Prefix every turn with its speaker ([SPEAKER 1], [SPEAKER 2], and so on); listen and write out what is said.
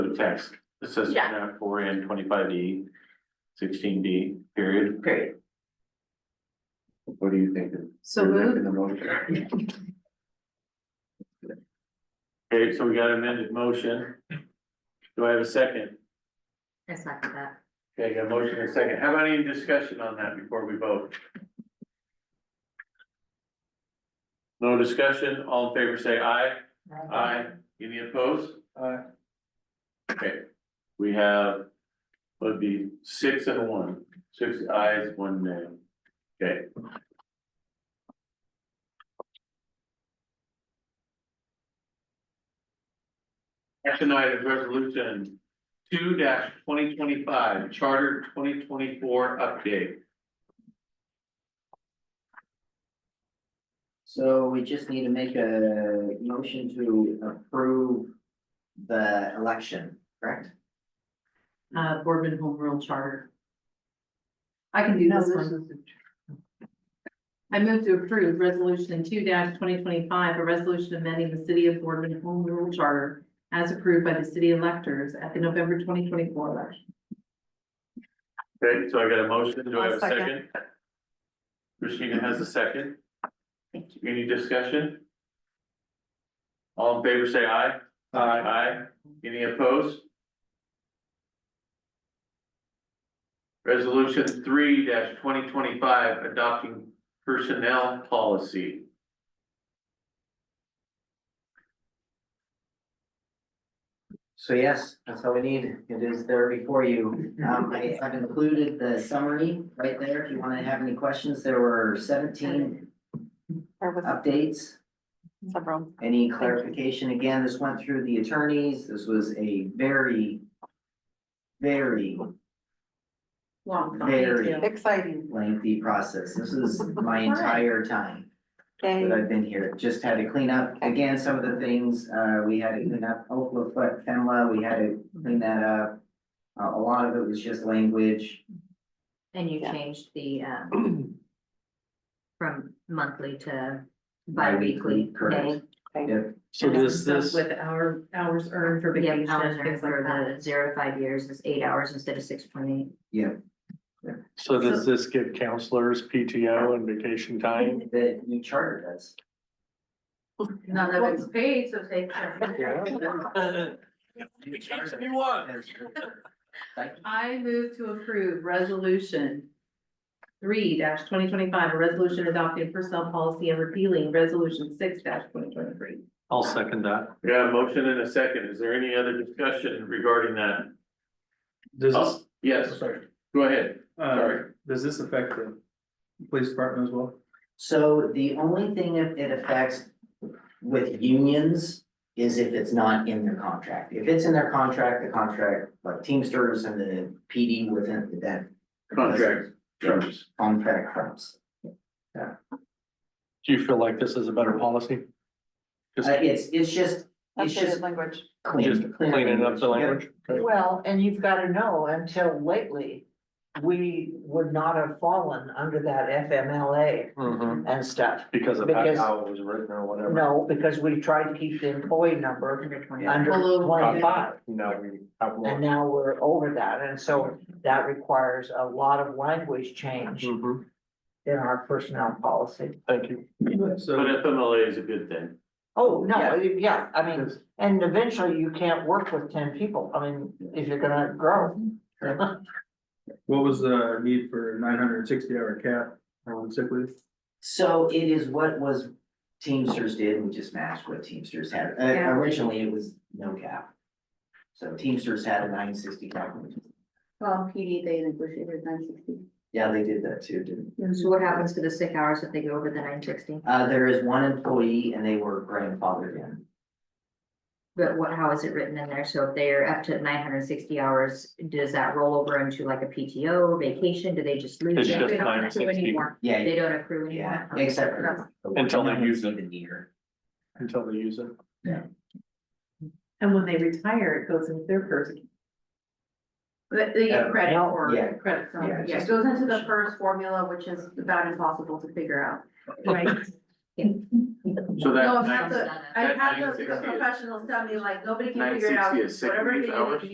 [SPEAKER 1] the text, assessment
[SPEAKER 2] Yeah.
[SPEAKER 1] map four and twenty-five D, sixteen D, period.
[SPEAKER 2] Great.
[SPEAKER 1] What do you think? is-
[SPEAKER 2] So
[SPEAKER 1] is
[SPEAKER 2] moved.
[SPEAKER 1] in the motion? Okay, so we got amended motion. Do I have a second?
[SPEAKER 2] Mm-hmm. I second that.
[SPEAKER 1] Okay, got a motion and a second. How about any discussion on that before we vote? No discussion, all in favor say aye. Aye. Any opposed? Aye. Okay, we have, would be six and a one, six ayes, one nay. Okay. Action item resolution two twenty twenty-five, charter twenty twenty-four update.
[SPEAKER 3] So we just need to make a motion to approve the election, correct?
[SPEAKER 2] Uh, Boardman Home Rule Charter. I can do
[SPEAKER 4] No,
[SPEAKER 2] this
[SPEAKER 4] this
[SPEAKER 2] one. I move to approve resolution two twenty twenty-five, a resolution amending the city of Boardman Home Rule Charter as approved by the city electors at the November twenty twenty-four election.
[SPEAKER 1] Okay, so I got a motion, do I have a
[SPEAKER 4] I'll
[SPEAKER 1] second? Christina has a second. Any discussion? All in favor, say aye. Aye. Aye. Any opposed? Resolution three twenty twenty-five, adopting personnel policy.
[SPEAKER 3] So yes, that's all we need. It is there before you. Um, I have included the summary right there. If you want to have any questions, there were seventeen
[SPEAKER 4] There
[SPEAKER 3] Um,
[SPEAKER 4] was
[SPEAKER 3] updates.
[SPEAKER 4] several.
[SPEAKER 3] Any clarification? Again, this went through the attorneys. This was a very, very
[SPEAKER 2] Long.
[SPEAKER 3] Very.
[SPEAKER 4] Exciting.
[SPEAKER 3] lengthy process. This is my entire time. that
[SPEAKER 4] Yay.
[SPEAKER 3] I've been here, just had to clean up, again, some of the things, uh, we had to clean up, Oklahoma foot, FEMA, we had to clean that up. Uh, a lot of it was just language,
[SPEAKER 5] And you
[SPEAKER 4] Yeah.
[SPEAKER 5] changed the, um, from monthly to bi-weekly.
[SPEAKER 3] Correct. Yep.
[SPEAKER 6] So does this,
[SPEAKER 2] With our hours earned for
[SPEAKER 5] But yeah,
[SPEAKER 2] vacation,
[SPEAKER 5] hours are
[SPEAKER 2] things like
[SPEAKER 5] for
[SPEAKER 2] that.
[SPEAKER 5] the zero to five years is eight hours instead of six point eight.
[SPEAKER 6] so does this give counselors PTO and vacation time?
[SPEAKER 3] the new charter does.
[SPEAKER 2] None of it's paid, so they.
[SPEAKER 3] New charter has- Thank you.
[SPEAKER 2] I move to approve resolution three twenty twenty-five, a resolution adopting personnel policy and repealing resolution six twenty twenty-three.
[SPEAKER 6] I'll second that.
[SPEAKER 1] We got a motion and a second. Is there any other discussion regarding that?
[SPEAKER 7] Does
[SPEAKER 1] Oh,
[SPEAKER 7] this,
[SPEAKER 1] Yes,
[SPEAKER 7] sorry,
[SPEAKER 1] go ahead.
[SPEAKER 7] uh,
[SPEAKER 1] Sorry.
[SPEAKER 7] does this affect the police department as well?
[SPEAKER 3] So the only thing it it affects with unions is if it's not in their contract. If it's in their contract, the contract, like Teamsters and the PD within that
[SPEAKER 1] Contract terms.
[SPEAKER 3] contract trumps.
[SPEAKER 6] Do you feel like this is a better policy? Just,
[SPEAKER 3] Uh, it's, it's just, it's
[SPEAKER 4] Updated
[SPEAKER 3] just
[SPEAKER 4] language.
[SPEAKER 6] just
[SPEAKER 3] clean. clean
[SPEAKER 6] cleaning up the language? Okay.
[SPEAKER 8] Well, and you've got to know, until lately, we would not have fallen under that FMLA
[SPEAKER 6] Mhm.
[SPEAKER 8] and stuff.
[SPEAKER 6] Because of how-
[SPEAKER 8] Mm-hmm. Because-
[SPEAKER 6] how it was written or whatever.
[SPEAKER 8] No, because we tried to keep the employee number
[SPEAKER 5] Under twenty.
[SPEAKER 8] under
[SPEAKER 2] Below.
[SPEAKER 8] twenty-five,
[SPEAKER 6] Now we have
[SPEAKER 8] and
[SPEAKER 6] more.
[SPEAKER 8] now we're over that, and so that requires a lot of language change in
[SPEAKER 6] Mhm.
[SPEAKER 8] our personnel policy.
[SPEAKER 6] Thank you.
[SPEAKER 1] But
[SPEAKER 7] So,
[SPEAKER 1] FMLA is a good thing.
[SPEAKER 8] Oh, no, yeah, I mean,
[SPEAKER 6] Yes.
[SPEAKER 8] and eventually you can't work with ten people, I mean, if you're gonna grow.
[SPEAKER 7] what was the need for nine hundred and sixty hour cap on sick leave?
[SPEAKER 3] So it is what was Teamsters did, we just matched what Teamsters had, Uh,
[SPEAKER 2] Yeah.
[SPEAKER 3] originally it was no cap. So Teamsters had a nine sixty cap, which is-
[SPEAKER 4] Well, PD, they negotiated nine sixty.
[SPEAKER 3] yeah, they did that too, didn't,
[SPEAKER 5] So what happens to the sick hours if they go over the nine sixty?
[SPEAKER 3] uh, there is one employee and they were grandfathered in.
[SPEAKER 5] But what, how is it written in there? So if they're up to nine hundred and sixty hours, does that roll over into like a PTO vacation? Do they just lose?
[SPEAKER 6] It's
[SPEAKER 5] it?
[SPEAKER 6] just
[SPEAKER 5] They don't accrue
[SPEAKER 6] 960.
[SPEAKER 5] anymore.
[SPEAKER 3] Yeah,
[SPEAKER 5] They don't accrue
[SPEAKER 3] yeah,
[SPEAKER 5] anymore.
[SPEAKER 3] except for.
[SPEAKER 6] Until they use it.
[SPEAKER 3] The year.
[SPEAKER 6] Until they use it.
[SPEAKER 2] And when they retire, it goes into their first. But they get
[SPEAKER 3] Uh,
[SPEAKER 2] credit
[SPEAKER 8] no,
[SPEAKER 2] for,
[SPEAKER 3] yeah.
[SPEAKER 2] credit for,
[SPEAKER 3] Yeah,
[SPEAKER 2] yeah, it
[SPEAKER 3] just-
[SPEAKER 2] goes into the first formula, which is about impossible to figure out. Right.
[SPEAKER 1] So that.
[SPEAKER 2] No, I've had
[SPEAKER 1] nine-
[SPEAKER 2] the, I've
[SPEAKER 1] that
[SPEAKER 2] had the
[SPEAKER 1] 960
[SPEAKER 2] the professionals tell me like, nobody can figure it out,
[SPEAKER 1] 960 is sick
[SPEAKER 2] whatever
[SPEAKER 1] leave
[SPEAKER 2] it is,
[SPEAKER 1] hours?